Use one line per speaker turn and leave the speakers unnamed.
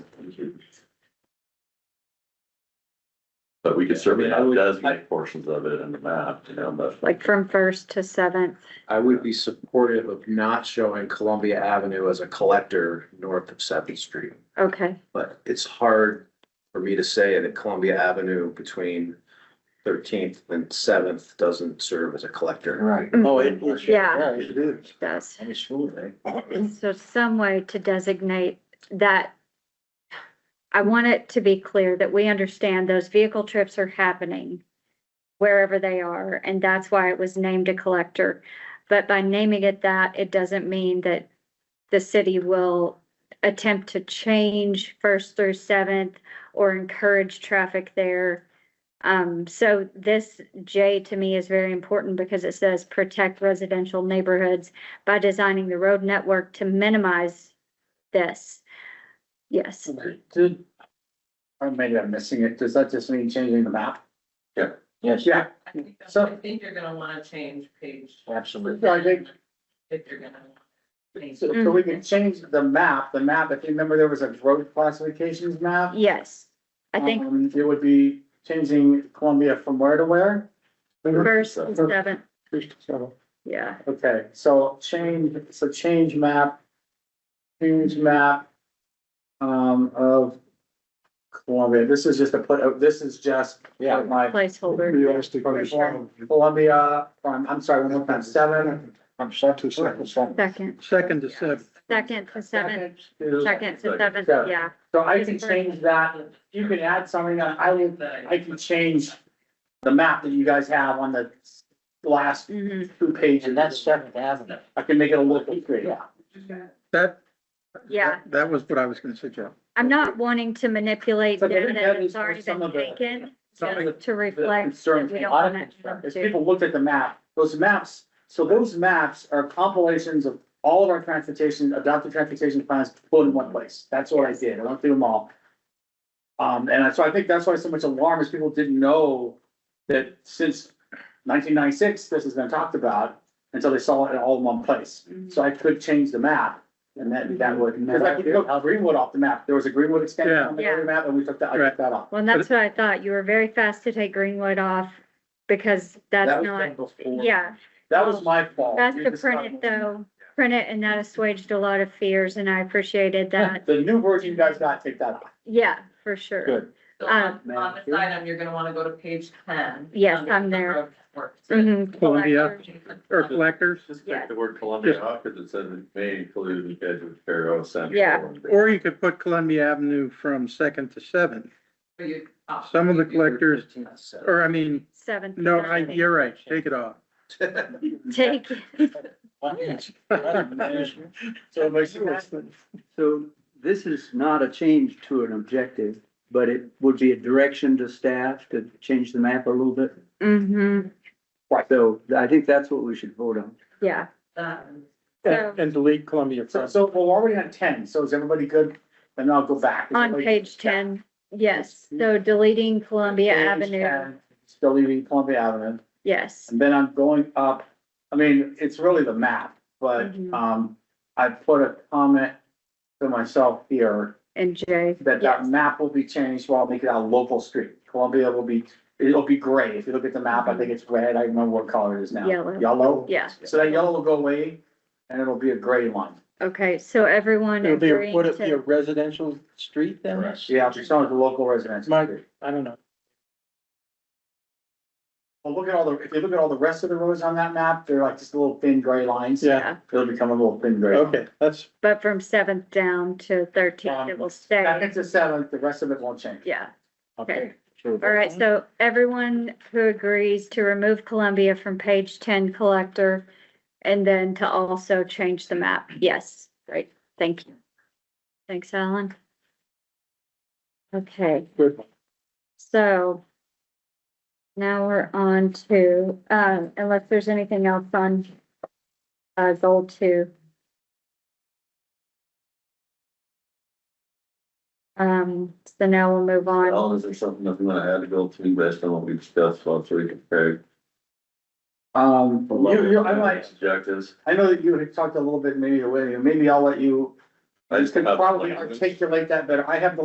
But we could certainly
I
have
would-
designate portions of it in the map, you know, but.
like from first to seventh.
I would be supportive of not showing Columbia Avenue as a collector north of Seventh Street.
Okay,
But it's hard for me to say that Columbia Avenue between Thirteenth and Seventh doesn't serve as a collector.
Right.
Oh,
it- it-
Yeah.
it is.
does.
I'm sure,
So some way to designate that. I want it to be clear that we understand those vehicle trips are happening wherever they are, and that's why it was named a collector. But by naming it that, it doesn't mean that the city will attempt to change first through seventh or encourage traffic there. Um, so this J to me is very important because it says protect residential neighborhoods by designing the road network to minimize this. Yes,
they Did, or maybe I'm missing it, does that just mean changing the map?
Yeah.
Yes. Yeah,
I think, that's-
So-
I think you're gonna wanna change page.
absolutely. I think,
If you're gonna. change.
so so we can change the map, the map, if you remember, there was a road classifications map.
yes. I think
Um, It would be changing Columbia from where to where?
first and seventh,
So,
yeah,
Okay, so change, so change map. Change map. Um, of Columbia, this is just a, put. uh, this is just. Yeah. My
placeholder.
Realistic.
For sure.
Columbia, from, I'm sorry, one more time, seven.
I'm set to second.
Second,
Second to seven.
second to seventh,
to-
second to seventh,
Seven.
yeah.
So I can change that, you can add something, I, I will- I can change the map that you guys have on the last
Mhm.
two pages.
And that's Seventh Avenue.
I can make it a little bit, yeah.
That.
Yeah.
That was what I was gonna suggest.
I'm not wanting to manipulate
So maybe
data
that
that's
is for
already
some
been
of the-
taken
some of the-
just to
the
reflect that
concerns
we
a
don't
lot of
want
people have. If
to.
people looked at the map, those maps, so those maps are compilations of all of our transportation, adopted transportation plans put in one place. That's what I did. I went through them all. Um, and I- so I think that's why so much alarm is people didn't know that since nineteen ninety-six, this has been talked about until they saw it all in one place.
Mhm.
So I could change the map and that, that would, because I could go Greenwood off the map. There was a Greenwood extension on the
Yeah.
other map and we took that, I took that off.
Well, and that's what I thought. You were very fast to take Greenwood off because
That
that's
was done
not,
before.
yeah.
That was my fault.
That's
You
to
just
print
got-
it though, print it and that assuaged a lot of fears and I appreciated that.
The new version you guys got, take that off.
Yeah, for sure.
Good.
So on,
Um,
on this item, you're gonna wanna go to page ten. Um,
Yes,
under
I'm there.
road network.
Mhm,
Columbia.
collector.
Or collectors,
Just
Yeah.
take the word Columbia off, cause it said it may include the edge of Faro Central.
Yeah.
and-
or you could put Columbia Avenue from second to seventh,
So you- oh,
Some of the
you-
collectors, or I mean,
Seventh.
no, I, you're right, take it off.
Take, it. Oh,
So it makes sense.
So this is not a change to an objective, but it would be a direction to staff to change the map a little bit.
mhm,
So I think that's what we should vote on.
yeah.
that and-
So
And delete Columbia
So, so we're already on ten, so is everybody good? Then I'll go back. Is
on
everybody-
page ten, yes, so deleting Columbia
Page
Avenue,
10, Still leaving Columbia Avenue,
yes.
and then I'm going up, I mean, it's really the map, but,
Mhm.
um, I put a comment to myself here
And J,
that that
yes,
map will be changed, well, I'll make it a local street. Columbia will be, it'll be gray. If you look at the map, I think it's red. I don't remember what color it is now.
Yellow.
Yellow.
yeah,
So that yellow will go away and it'll be a gray line.
okay, so everyone agreeing to,
residential street then?
Correct.
Yeah, just on the local residential
Mike.
street.
I don't know.
Well, look at all the, if you look at all the rest of the roads on that map, they're like just little thin gray lines.
yeah,
It'll become a little thin gray.
Okay, that's,
but from seventh down to thirteenth, it will stay,
Second to seventh, the rest of it won't change.
yeah. Okay.
Sure.
All right, so everyone who agrees to remove Columbia from page ten collector and then to also change the map, yes, great, thank you. Thanks, Alan. Okay.
Good.
So now we're on to, um, unless there's anything else on uh, goal two. Um, so now we'll move on.
Alan, is there something that's gonna add to go to based on what we discussed while we compared?
Um, you, you, I might,
Objectives.
I know that you had talked a little bit maybe, away, maybe I'll let you, uh,
I
you
just
could
have,
probably
like,
articulate that better. I have the